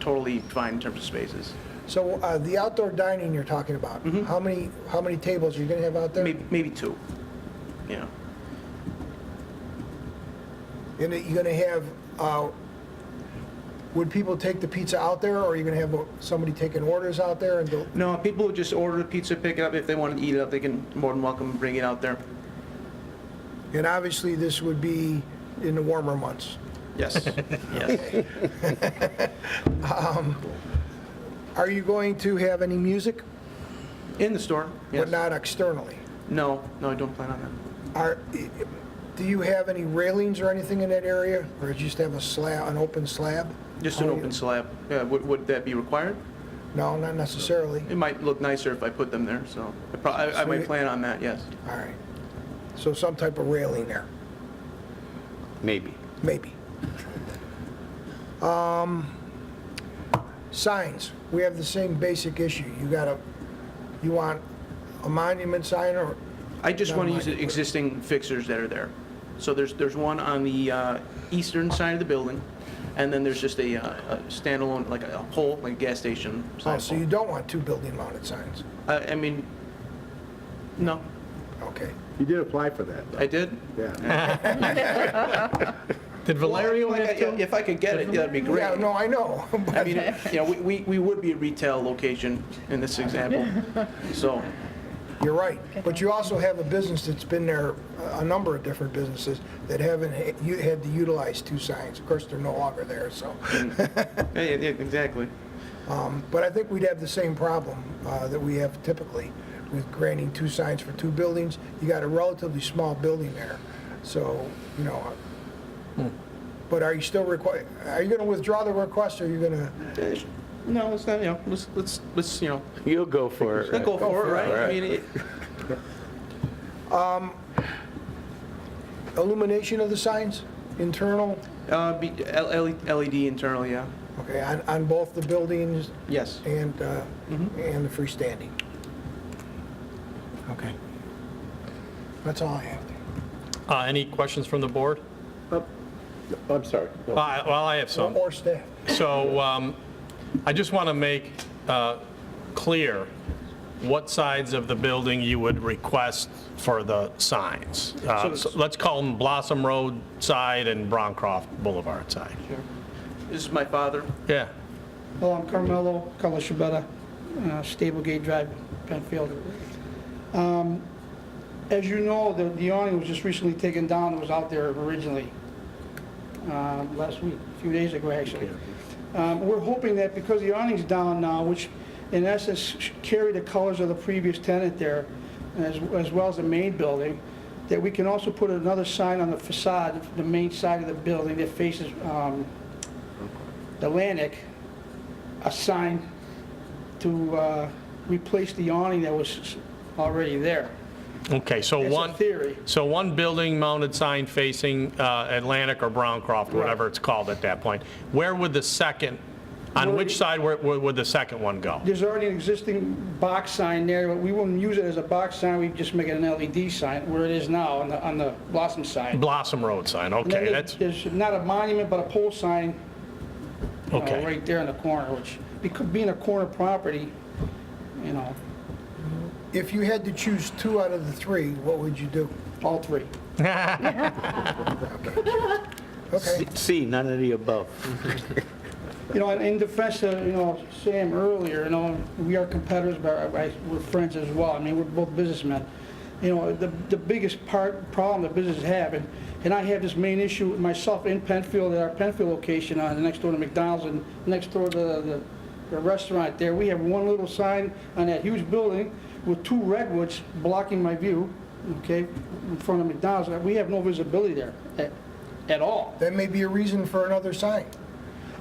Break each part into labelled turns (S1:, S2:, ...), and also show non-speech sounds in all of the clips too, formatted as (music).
S1: totally fine in terms of spaces.
S2: So uh, the outdoor dining you're talking about, how many, how many tables are you going to have out there?
S1: Mm-hmm. Maybe, maybe two, you know.
S2: And that you're going to have, uh, would people take the pizza out there, or are you going to have uh, somebody taking orders out there? and do-
S1: No, people would just order the pizza, pick it up. If they want to eat it up, they can, more than welcome, to bring it out there.
S2: And obviously, this would be in the warmer (laughs) months.
S1: Yes, yes.
S2: Um, Are you going to have any music,
S1: In the store,
S2: but
S1: yes.
S2: not externally?
S1: No, no, I don't plan on that.
S2: Are, do you have any railings or anything in that area, or just have a slab, an open slab? Oh,
S1: Just an open slab. Yeah, would, would that be required?
S2: No, not necessarily.
S1: It might look nicer if I put them there, so I prob- I, I might
S2: Sweet.
S1: plan on that, yes.
S2: All right. So some type of railing there,
S3: Maybe.
S2: maybe. Um, Signs, we have the same basic issue. You got a, you want a monument sign or, oh,
S1: I just
S2: Never
S1: want to
S2: mind,
S1: use the
S2: you put it.
S1: existing fixtures that are there. So there's, there's one on the uh, eastern side of the building, and then there's just a uh, a standalone, like a pole, like a gas station.
S2: oh,
S1: sign
S2: so you
S1: pole.
S2: don't want two building mounted signs?
S1: I, I mean, no,
S2: Okay.
S4: You did apply for that,
S1: I did.
S4: yeah.
S5: Did Valerio
S1: If I
S5: have
S1: could-
S5: to?
S1: If I could get it, that'd be great.
S2: Yeah, no, I know. (laughs) but-
S1: I mean, (laughs) you know, we- we, we would be a retail location in this (laughs) example, so,
S2: You're right, but you also have a business that's been there, a number of different businesses that haven't, ha- you had to utilize two signs. Of course, they're no longer there, so.
S1: yeah, yeah, yeah, exactly.
S2: But I think we'd have the same problem uh, that we have typically with granting two signs for two buildings. You got a relatively small building there, so, you know. uh, But are you still require, are you going to withdraw the request, or are you going to,
S1: Eh, No, it's not, you know, let's, let's, let's, you know,
S3: You'll go for it.
S1: let's go for it, right? I mean, it-
S2: illumination of the signs, internal?
S1: uh, be- L- L- LED internal, yeah,
S2: Okay, on, on both the buildings
S1: yes.
S2: and, uh, and the freestanding? Okay. That's all I have.
S5: Uh, Any questions from the board?
S4: I'm sorry.
S5: Uh, Well, I have some.
S2: Or staff?
S5: So um, I just want to make uh, clear what sides of the building you would request for the signs. Uh,
S1: So-
S5: so Let's call them Blossom Road side and Broncroft Boulevard side.
S1: Sure. This is my father.
S5: Yeah.
S6: Hello, I'm Carmelo Calashabetta, Stablegate Drive, Penfield. Um, As you know, the the awning was just recently taken down, it was out there originally, uh, last week, a few days ago, actually. Um, We're hoping that because the awning's down now, which in essence sh- carry the colors of the previous tenant there, as as well as the main building, that we can also put another sign on the facade, the main side of the building that faces um, Atlantic, a sign to uh, replace the awning that was already there.
S5: Okay, so
S6: It's a
S5: one.
S6: theory.
S5: So one building mounted sign facing uh, Atlantic or Browncroft, whatever it's called at that point. Where would the second, on
S6: Where-
S5: which side where- where would the second one go?
S6: There's already an existing box sign there, but we wouldn't use it as a box sign, we'd just make it an LED sign where it is now on the, on the Blossom sign.
S5: Blossom Road sign,
S6: And then
S5: okay,
S6: there's-
S5: that's,
S6: There's not a monument, but a pole sign, you know,
S5: okay.
S6: right there in the corner, which, because being a corner property, you know,
S2: If you had to choose two out of the three, what would you do?
S6: all three.
S2: Okay,
S3: See, none of the above.
S6: You know, in defense of, uh, you know, Sam earlier, you know, we are competitors, but I- I- we're friends as well. I mean, we're both businessmen. You know, the, the biggest part, problem that businesses have, and, and I have this main issue myself in Penfield, at our Penfield location, on the next door to McDonald's and next door to the, the restaurant there. We have one little sign on that huge building with two redwoods blocking my view, okay, in front of McDonald's. We have no visibility there at, at all.
S2: that may be a reason for another sign.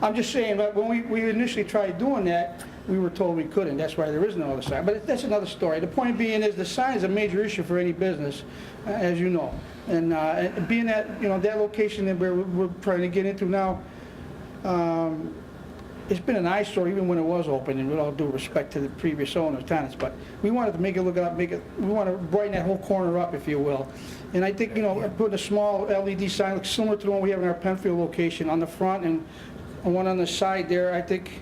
S6: I'm just saying, but when we, we initially tried doing that, we were told we couldn't, that's why there is no other sign, but that's another story. The point being is, the sign is a major issue for any business, uh, as you know. And, uh, and being that, you know, that location that we're, we're trying to get into now, um, it's been an eyesore even when it was open, and with all due respect to the previous owners, tenants, but we wanted to make it look up, make it, we want to brighten that whole corner up, if you will. And I think, you know, putting a small E LED sign, like similar to the one we have in our Penfield location, on the front and one on the side there, I think